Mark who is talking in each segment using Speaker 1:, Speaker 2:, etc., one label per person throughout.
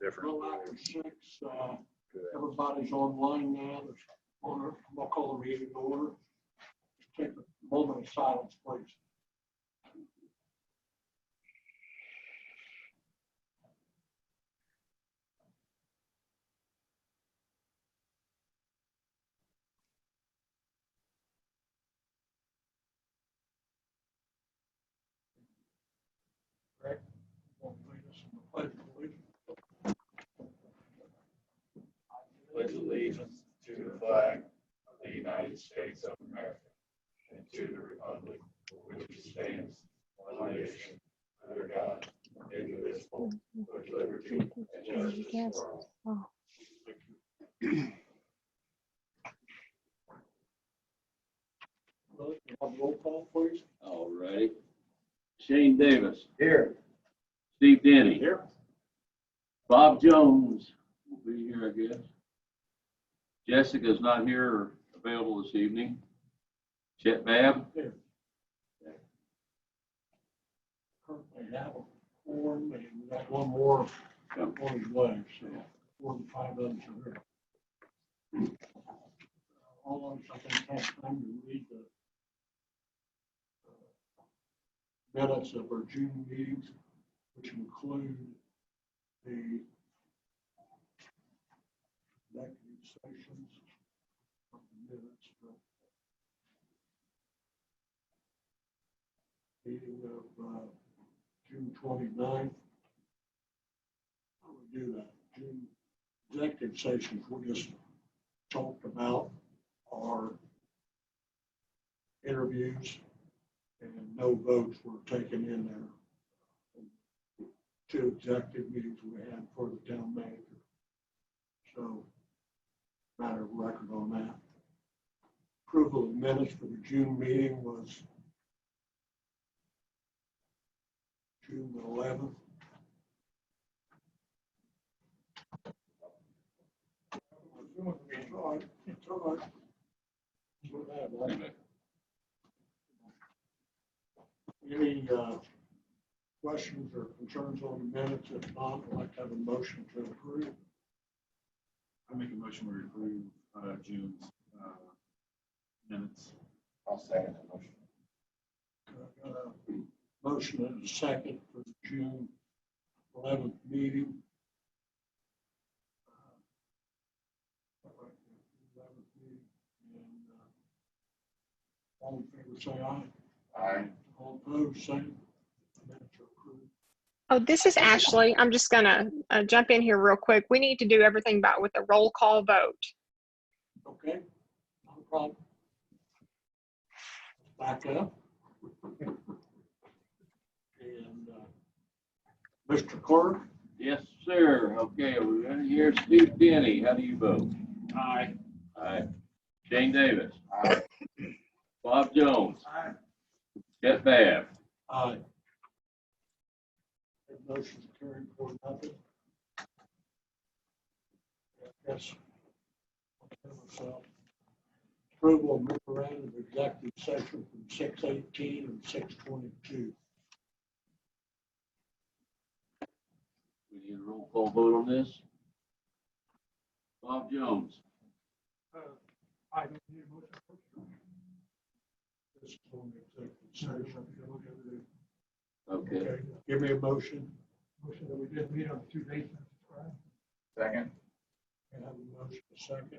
Speaker 1: different.
Speaker 2: after six, uh,
Speaker 1: Good.
Speaker 2: everybody's online now, there's, order, I'll call the meeting to order. Take a moment of silence, please. Rick, will you lead us in the pledge of allegiance?
Speaker 3: pledge allegiance to the flag of the United States of America and to the republic for which it stands, one nation, under God, indivisible, with liberty and justice for all.
Speaker 2: Will you Have roll call, please.
Speaker 4: All righty. Shane Davis,
Speaker 3: Here.
Speaker 4: Steve Denny.
Speaker 2: Here.
Speaker 4: Bob Jones will be here, I guess. Jessica's not here or available this evening. Chet Bab,
Speaker 2: currently have a form, and we got one more,
Speaker 4: Yep.
Speaker 2: one is left, so four and five others are here. All of us, I think, have time to read the uh, minutes of our June meetings, which include the executive sessions of the minutes from meeting of uh, June 29th. We do that, June executive sessions we just talked about our interviews and no votes were taken in there. Two executive meetings we had for the town manager. So matter of record on that. Approval of minutes for the June meeting was June eleventh. Any uh, questions or concerns on the minutes? If not, I'd like to have a motion to approve.
Speaker 5: I make a motion to approve uh, June's uh, minutes.
Speaker 3: I'll second the motion.
Speaker 2: Uh, Motion and a second for the June eleventh meeting. Uh, And, uh, All in favor, say aye.
Speaker 3: Aye.
Speaker 2: All opposed, same. Minutes are approved.
Speaker 6: Oh, this is Ashley. I'm just gonna uh, jump in here real quick. We need to do everything by with a roll call vote.
Speaker 2: Okay, no problem. Back up. And uh, Mr. Clerk,
Speaker 4: yes, sir. Okay, we're gonna hear Steve Denny. How do you vote?
Speaker 5: Aye.
Speaker 4: Aye. Shane Davis,
Speaker 3: Aye.
Speaker 4: Bob Jones. Aye. Chet Bab,
Speaker 2: aye. That motion's carried for nothing. Yes. Approval of memorandum of executive session from six eighteen and six twenty-two.
Speaker 4: we need a roll call vote on this. Bob Jones,
Speaker 7: Uh,
Speaker 2: This is on the executive session.
Speaker 4: okay.
Speaker 2: Give me a motion.
Speaker 7: motion that we did meet on the two dates. right?
Speaker 3: Second.
Speaker 2: I have a motion, a second.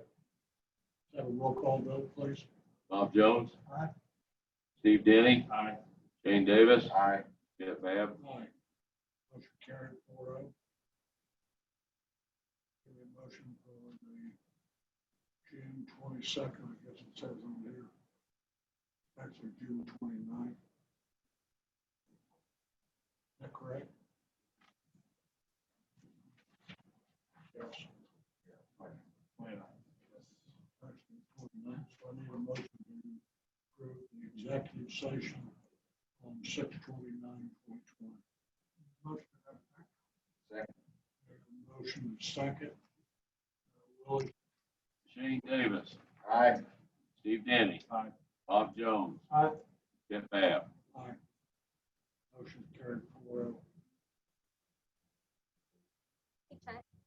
Speaker 2: Have a roll call vote, please.
Speaker 4: Bob Jones.
Speaker 7: Aye.
Speaker 4: Steve Denny,
Speaker 5: Aye.
Speaker 4: Shane Davis,
Speaker 3: Aye.
Speaker 4: Jeff Bab,
Speaker 2: Aye. Motion carried four oh. Give me a motion for the June twenty-second, I guess it says on here. Actually, June 29th. Is that correct? Yes. Actually, 29th, so I need a motion to approve the executive session on six twenty-nine point one. Motion.
Speaker 3: Second.
Speaker 2: Motion is second. Uh, Willie,
Speaker 4: Shane Davis,
Speaker 3: Aye.
Speaker 4: Steve Denny.
Speaker 2: Aye.
Speaker 4: Bob Jones.
Speaker 7: Aye.
Speaker 4: Jeff Bab.
Speaker 2: motion carried four oh.